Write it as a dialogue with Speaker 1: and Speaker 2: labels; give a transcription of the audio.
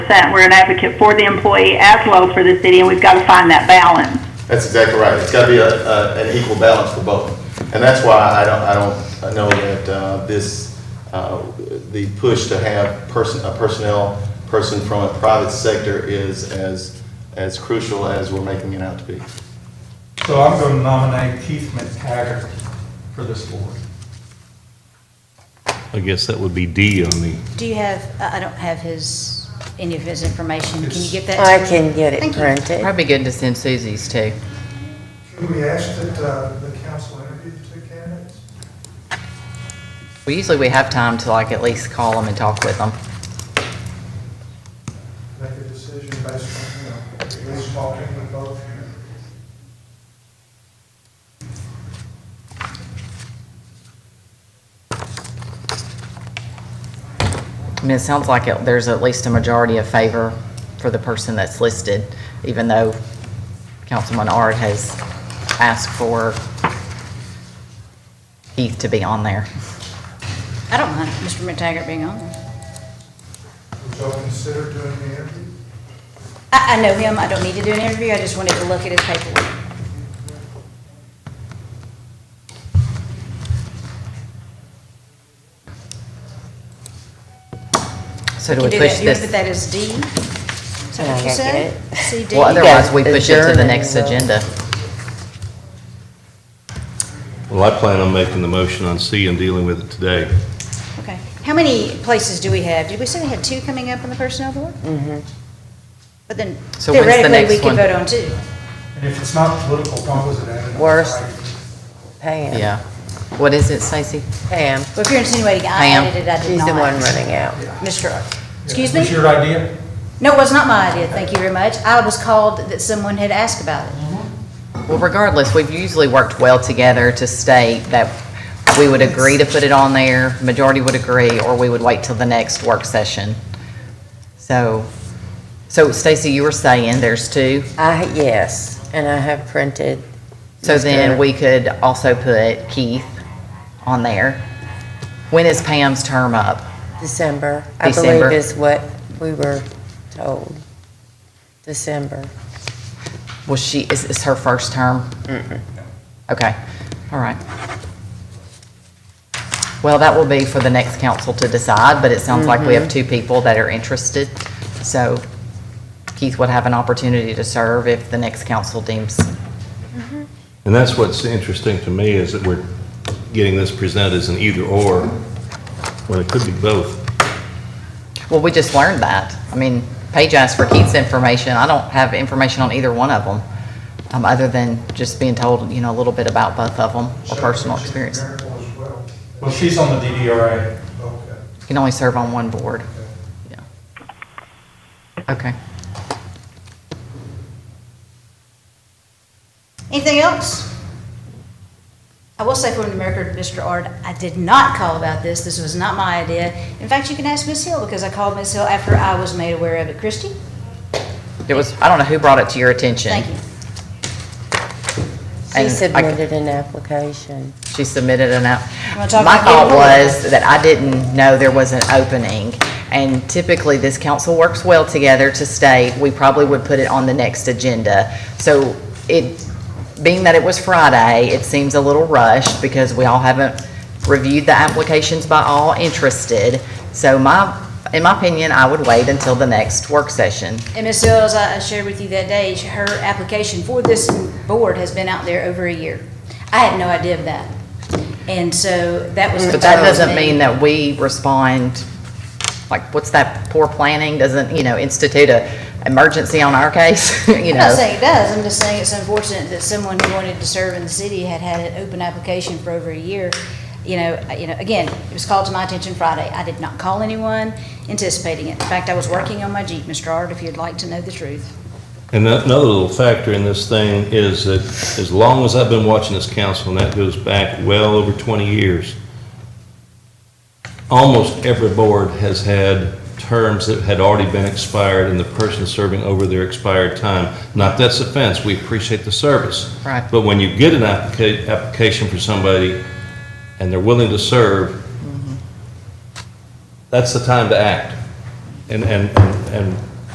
Speaker 1: percent, we're an advocate for the employee as well for the city, and we've got to find that balance.
Speaker 2: That's exactly right. It's got to be a, a, an equal balance for both. And that's why I don't, I don't I know that, uh, this, uh, the push to have person, a personnel person from a private sector is as, as crucial as we're making it out to be.
Speaker 3: So I'm going to nominate Keith McTaggart for this board.
Speaker 4: I guess that would be D on the,
Speaker 5: Do you have, I I don't have his, any of his information. Can you get that?
Speaker 6: Oh, I can get it
Speaker 5: Thank you.
Speaker 6: printed.
Speaker 7: Probably good to send Susie's too.
Speaker 3: Should we ask that uh, the council interview the two candidates?
Speaker 7: We usually, we have time to like at least call them and talk with them.
Speaker 3: Make a decision based on, you know, at least talking with both.
Speaker 7: I mean, it sounds like it- there's at least a majority of favor for the person that's listed, even though Councilman Ard has asked for Keith to be on there.
Speaker 5: I don't mind Mr. McTaggart being on there.
Speaker 3: Would y'all consider doing the interview?
Speaker 5: I, I know him, I don't need to do an interview, I just wanted to look at his paperwork.
Speaker 7: So do
Speaker 5: You
Speaker 7: we
Speaker 5: do
Speaker 7: push
Speaker 5: that, you
Speaker 7: this?
Speaker 5: put that as D? Is that what
Speaker 6: Yeah, I
Speaker 5: you
Speaker 6: got
Speaker 5: said?
Speaker 6: it.
Speaker 5: CD?
Speaker 7: Well, otherwise,
Speaker 6: Yeah,
Speaker 7: we push it to
Speaker 6: adjourn and
Speaker 7: the
Speaker 6: uh,
Speaker 7: next
Speaker 6: we'll-
Speaker 7: agenda.
Speaker 4: well, I plan on making the motion on C and dealing with it today.
Speaker 5: Okay. How many places do we have? Did we say we had two coming up on the personnel board? Mm-hmm. But then
Speaker 7: So when's the
Speaker 5: theoretically, we
Speaker 7: next
Speaker 5: could
Speaker 7: one?
Speaker 5: vote on two.
Speaker 3: And if it's not political, why was it added?
Speaker 6: Worse.
Speaker 3: Right.
Speaker 6: Pam,
Speaker 7: Yeah. What is it, Stacy?
Speaker 6: Pam,
Speaker 5: Well, if you're insinuating I
Speaker 7: Pam.
Speaker 5: added it, I did
Speaker 6: she's
Speaker 5: not.
Speaker 6: the one running out.
Speaker 5: Mr. Ard. Excuse me?
Speaker 3: Was your idea?
Speaker 5: No, it was not my idea, thank you very much. I was called that someone had asked about it.
Speaker 7: Well, regardless, we've usually worked well together to state that we would agree to put it on there, majority would agree, or we would wait till the next work session. So, so Stacy, you were saying there's two,
Speaker 6: I, yes, and I have printed.
Speaker 7: so then
Speaker 6: Mr.
Speaker 7: we could also put Keith on there. When is Pam's term up?
Speaker 6: December, I
Speaker 7: December.
Speaker 6: believe is what we were told. December.
Speaker 7: Was she, is this her first term? Okay, all right. Well, that will be for the next council to decide, but it sounds like we have two people that are interested. So Keith would have an opportunity to serve if the next council deems,
Speaker 4: And that's what's interesting to me is that we're getting this presented as an either-or, when it could be both.
Speaker 7: well, we just learned that. I mean, Paige asked for Keith's information. I don't have information on either one of them, um, other than just being told, you know, a little bit about both of them or personal experience. You
Speaker 3: Well, she's on the DDRA. Okay.
Speaker 7: can only serve on one board. Yeah. Okay.
Speaker 5: Anything else? I will say for the record, Mr. Ard, I did not call about this. This was not my idea. In fact, you can ask Ms. Hill because I called Ms. Hill after I was made aware of it. Christie?
Speaker 7: It was, I don't know who brought it to your attention.
Speaker 5: Thank you.
Speaker 6: She
Speaker 7: And I-
Speaker 6: submitted an application.
Speaker 7: She submitted an app.
Speaker 5: You wanna talk
Speaker 7: My
Speaker 5: about
Speaker 7: thought
Speaker 5: getting rid of
Speaker 7: was that I didn't know there was an opening. And typically, this council works well together to state, we probably would put it on the next agenda. So it, being that it was Friday, it seems a little rushed because we all haven't reviewed the applications by all interested. So my, in my opinion, I would wait until the next work session.
Speaker 5: And Ms. Hill, as I I shared with you that day, she- her application for this board has been out there over a year. I had no idea of that. And so that was. the
Speaker 7: But that
Speaker 5: thought of
Speaker 7: doesn't
Speaker 5: me.
Speaker 7: mean that we respond, like, what's that poor planning, doesn't, you know, institute a emergency on our case, you
Speaker 5: I'm not
Speaker 7: know?
Speaker 5: saying it does, I'm just saying it's unfortunate that someone who wanted to serve in the city had had an open application for over a year. You know, uh, you know, again, it was called to my attention Friday, I did not call anyone anticipating it. In fact, I was working on my Jeep, Mr. Ard, if you'd like to know the truth.
Speaker 4: And that- another little factor in this thing is that as long as I've been watching this council, and that goes back well over 20 years, almost every board has had terms that had already been expired and the person serving over their expired time. Not that's offense, we appreciate the service.
Speaker 7: Right.
Speaker 4: But when you get an applica- application for somebody and they're willing to serve, that's the time to act. And, and, and- and